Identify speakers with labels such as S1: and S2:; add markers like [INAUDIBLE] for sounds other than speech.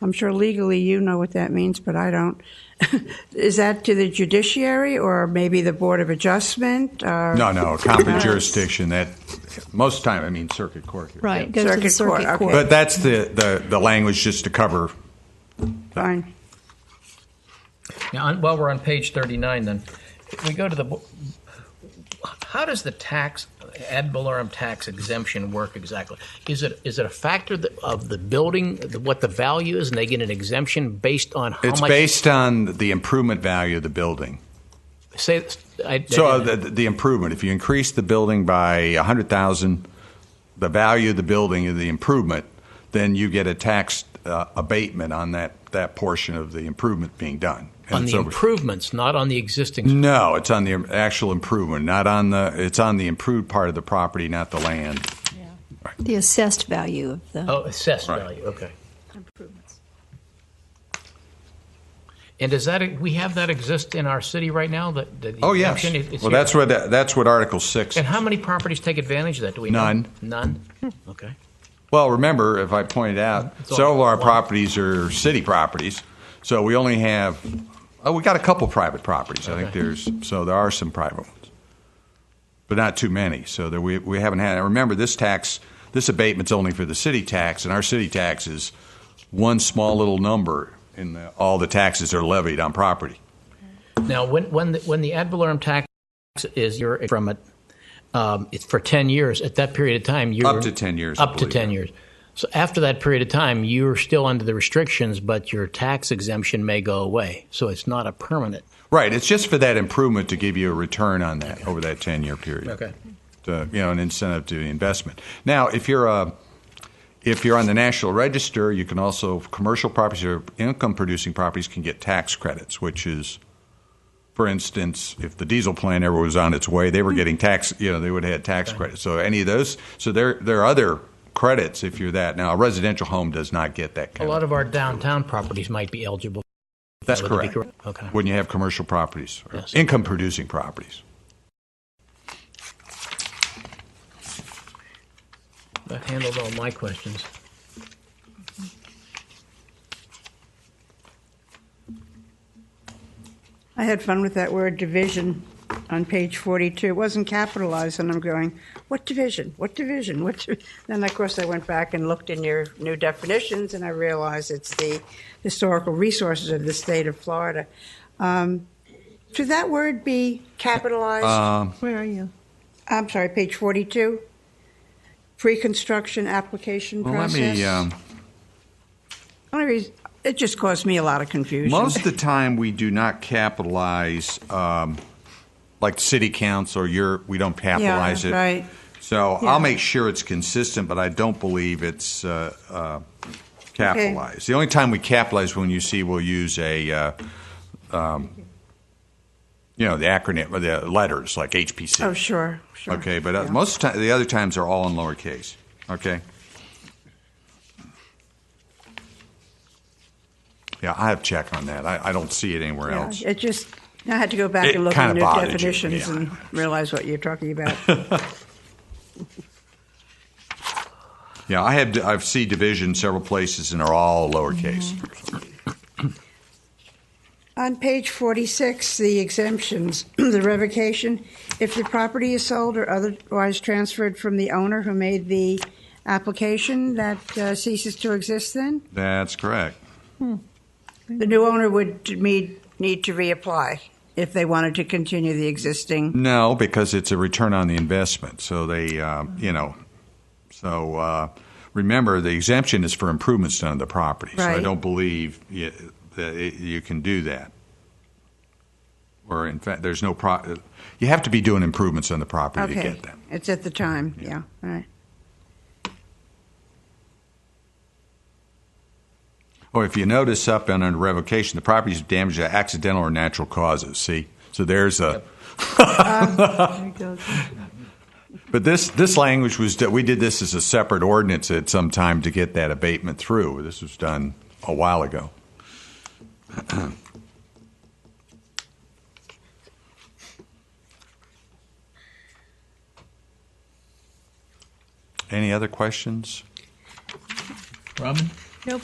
S1: I'm sure legally you know what that means, but I don't. [LAUGHS] Is that to the judiciary or maybe the Board of Adjustment? Uh, Or
S2: No, no, competent
S1: Yes.
S2: jurisdiction, that, most time, I mean circuit court here.
S3: Right,
S1: Yeah.
S3: goes to the
S1: Circuit court,
S3: circuit
S1: okay.
S2: But
S3: court.
S2: that's the, the, the language just to cover,
S1: Fine.
S4: Now, on, while we're on page 39, then, if we go to the. bo- How does the tax, ad valorem tax exemption work exactly? Is it is it a factor that, of the building, the- what the value is, and they get an exemption based on how
S2: it's
S4: much?
S2: based on the improvement value of the building.
S4: Say, I,
S2: So uh, the, the improvement, if you increase the building by a hundred thousand, the value of the building and the improvement, then you get a tax uh, abatement on that, that portion of the improvement being done. And
S4: on
S2: it's
S4: the
S2: over-
S4: improvements, not on the existing.
S2: No, it's on the im- actual improvement, not on the, it's on the improved part of the property, not the land.
S3: The assessed value of the,
S4: Oh, assessed
S2: Right.
S4: value. Okay. And does that we have that exist in our city right now? That, that the
S2: Oh, yes.
S4: exemption is- is
S2: Well,
S4: here?
S2: that's what, that- that's what Article 6
S4: And how many properties take advantage of that? Do we know?
S2: None.
S4: None? Hmm. Okay.
S2: Well, remember, if I pointed out,
S4: It's all-
S2: several of our
S4: wow.
S2: properties are city properties, so we only have, oh, we got a couple private properties. I think
S4: Okay.
S2: there's, so there are some private ones, but not too many. So there, we, we haven't had, and remember, this tax, this abatement's only for the city tax, and our city tax is one small little number in the, all the taxes are levied on property.
S4: Now, when, when, the, when the ad valorem tax is, you're from it, um, it's for 10 years. At that period of time, you're
S2: Up to 10 years, I
S4: Up to
S2: believe.
S4: 10 years. So after that period of time, you're still under the restrictions, but your tax exemption may go away. So it's not a permanent.
S2: Right, it's just for that improvement to give you a return on that over that 10-year period.
S4: Okay.
S2: to, you know, an incentive to the investment. Now, if you're a, if you're on the National Register, you can also commercial properties or income-producing properties can get tax credits, which is, for instance, if the diesel plant ever was on its way, they were getting tax. You know, they would have had tax credits. So any of those. So there there are other credits if you're that. Now, a residential home does not get that.
S4: A
S2: Kind
S4: lot of our downtown properties might be eligible.
S2: that's
S4: that would be
S2: correct.
S4: correct. Okay.
S2: When you have commercial properties, or
S4: Yes.
S2: income-producing properties.
S4: That handled all my questions.
S1: I had fun with that word division on page 42. It wasn't capitalized, and I'm going, what division? What division? What? Div-? [LAUGHS] Then, of course, I went back and looked in your new definitions, and I realized it's the historical resources of the state of Florida. Um, should that word be capitalized?
S2: Uh,
S3: where are you?
S1: I'm sorry, page 42. Pre-construction application
S2: Well, let
S1: process.
S2: me. Um,
S1: Only reason, it just caused me a lot of confusion.
S2: Most of the time, we do not capitalize, um, like city council, you're, we don't capitalize
S1: Yeah,
S2: it.
S1: right.
S2: So
S1: Yeah.
S2: I'll make sure it's consistent, but I don't believe it's uh, uh, capitalized. The only time we capitalize when you see we'll use a, uh, um, you know, the acronym, or the letters, like HPC.
S1: Oh, sure, sure.
S2: Okay, but uh,
S1: Yeah.
S2: most of the, the other times are all in lowercase. Okay. Yeah, I have check on that. I, I don't see it anywhere
S1: Yeah,
S2: else.
S1: It just, I had to go back
S2: It
S1: and look
S2: kinda
S1: at new
S2: bothered you,
S1: definitions
S2: yeah.
S1: and realize what you're talking about. [LAUGHS]
S2: yeah, I have. I've seen division several places and are all lowercase.
S1: Mm-hmm. On page 46, the exemptions, [CLEARS THROAT] the revocation, if the property is sold or otherwise transferred from the owner who made the application, that uh, ceases to exist then?
S2: That's correct.
S1: The new owner would need, need to reapply if they wanted to continue the existing.
S2: No, because it's a return on the investment. So they, um, you know, so uh, remember the exemption is for improvements done to the property. So I
S1: Right.
S2: don't believe you, that it, you can do that. Or in fact, there's no pro. You have to be doing improvements on the property to
S1: Okay,
S2: get them.
S1: it's at the time, yeah, all right.
S2: Or if you notice up and under revocation, the property is damaged by accidental or natural causes. See, so there's a.
S3: There it goes.
S2: [LAUGHS] But this, this language was, we did this as a separate ordinance at some time to get that abatement through. This was done a while ago. [CLEARS THROAT] Any other questions?
S4: Robin?
S3: Nope.